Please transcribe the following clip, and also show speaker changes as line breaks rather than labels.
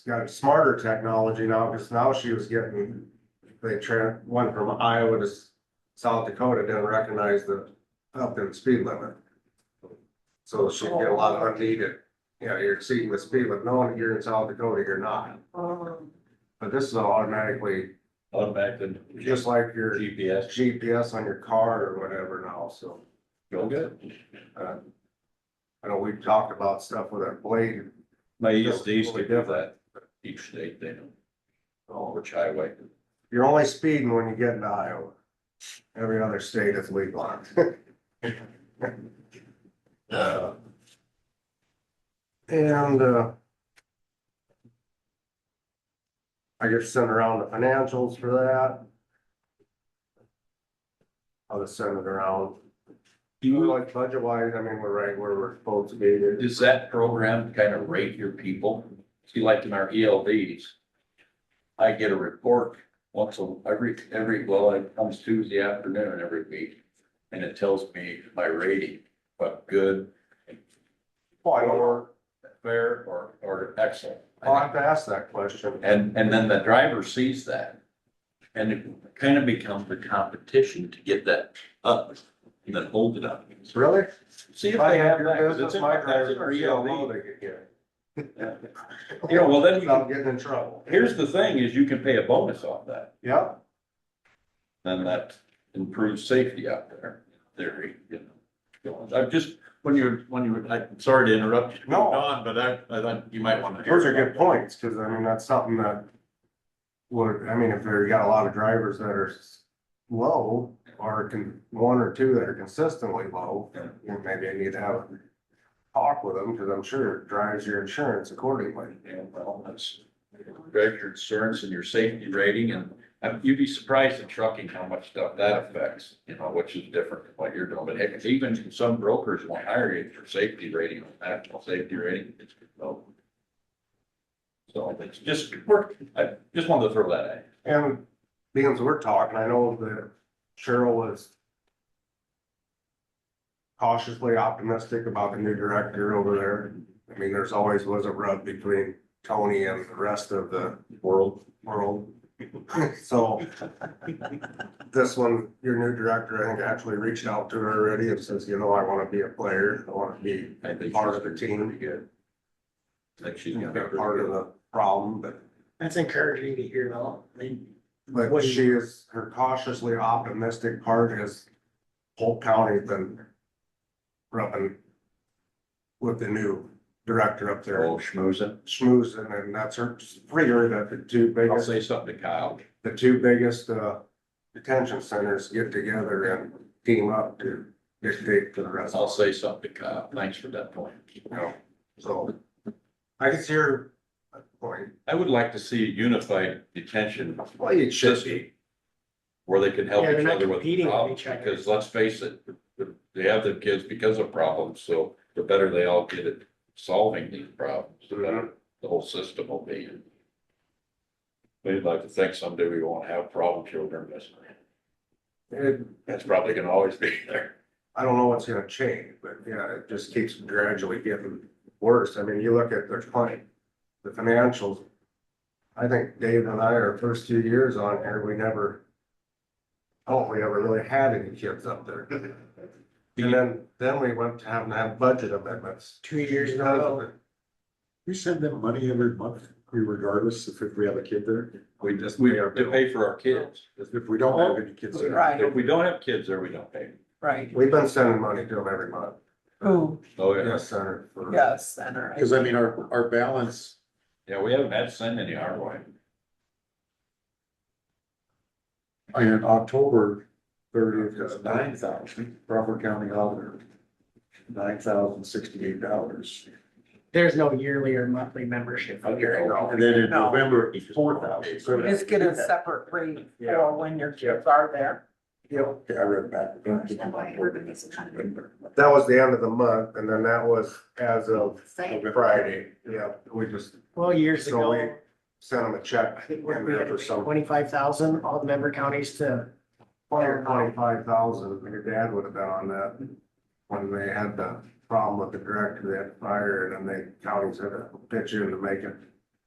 got smarter technology now, because now she was getting, they tran, went from Iowa to S- South Dakota, didn't recognize the up in speed limit. So she'd get a lot of unneeded, you know, you're exceeding the speed limit, no, you're in South Dakota, you're not. But this is automatically,
automatically,
just like your
GPS,
GPS on your car or whatever now, so.
go good.
uh, I know we've talked about stuff with our blade,
My E east, they used to do that, each state, they know, Oh,
so
which highway.
you're only speeding when you get into Iowa. Every other state is legal. Uh, And, uh, I just sent around the financials for that. I'll just send it around.
Do
You
you,
like budget wise, I mean, we're right where we're supposed to be.
does that program kind of rate your people? See, like in our ELDs, I get a report once a, every, every, well, it comes Tuesday afternoon every week. And it tells me my rating, but good,
Oh, Or,
fair, or, or excellent.
I'll have to ask that question.
And, and then the driver sees that. And it kind of becomes a competition to get that up and then hold it up.
Really?
See if
If I
they
have
have that,
your
'cause it's
business,
in
my
my, that's in
drivers
our
are so low
ELD.
they could get.
You know, well, then you
Without
can,
getting in trouble.
here's the thing is you can pay a bonus off that.
Yeah,
Then that improves safety out there, in theory, you know. I'm just, when you're, when you were, I'm sorry to interrupt you. to
No.
move on, But I, I thought you might want to.
those are good points, cause I mean, that's something that would, I mean, if there got a lot of drivers that are s- low or can, one or two that are consistently low,
Yeah.
you know, maybe I need to have a talk with them, cause I'm sure it drives your insurance accordingly.
Yeah, well, that's, drive your insurance and your safety rating, and um, you'd be surprised in trucking how much stuff that affects, you know, which is different than what you're doing, but heck, even some brokers won't hire you for safety rating, national safety rating. it's low. So it's just, work. I just wanted to throw that at
And being as we're talking, I know that Cheryl was cautiously optimistic about the new director over there. I mean, there's always was a rub between Tony and the rest of the
you, world.
world. So this one, your new director, I think actually reached out to her already and says, you know, I want to be a player. I want to be
I think
Part of
she's
the team.
pretty Good. Like she's
you
gonna
know,
be
a part of the problem, but
That's encouraging to hear though. I mean,
But
What-
she is, her cautiously optimistic part is Polk County's been rubbing with the new director up there,
Oh, schmoozing.
schmoozing, and that's her, figure that the two
I'll
biggest,
say something to Kyle.
the two biggest, uh, detention centers get together and team up to dictate to the rest.
I'll say something to Kyle. Thanks for that point.
You know, so I can see her point.
I would like to see a unified detention
Well, it should be.
system. Where they can help
Yeah, they're
each
not
other with
competing with
problems,
each other.
because let's face it, the- they have their kids because of problems, so the better they all get at solving these problems, the
Mhm.
better the whole system will be. We'd like to think someday we won't have problem children, that's,
It-
that's probably gonna always be there.
I don't know what's gonna change, but yeah, it just keeps gradually getting worse. I mean, you look at there's plenty, the financials. I think Dave and I, our first two years on here, we never. I don't think we ever really had any kids up there. And then, then we went to having to have budget amendments.
two years in a row.
We
We send them money every month, regardless if if we have a kid there.
just.
We
pay our
have to
bills.
pay for our kids.
If we don't have any kids there.
Right.
If we don't have kids there, we don't pay.
Right.
We've been sending money to them every month.
Who?
Oh,
Yes, Senator. for-
Yes, and all right.
Cause I mean, our, our balance,
Yeah, we haven't had to send any our way.
in October thirtieth is nine thousand, Crawford County Auditor. Nine thousand sixty-eight dollars.
There's no yearly or monthly membership.
And then in
No.
November, four thousand.
Just get a separate rate
Yeah.
for when your kids are there.
Okay, I read that.
That was the end of the month and then that was as of
November.
Friday. Yeah, we just
Well, years
So
ago,
we- sent them a check.
I think
in
we
there
had
for some-
twenty-five thousand, all the member counties to,
Twenty-five thousand. your dad would have been on that. When they had the problem with the director, they had to fire it, and they counties had to pitch in to make it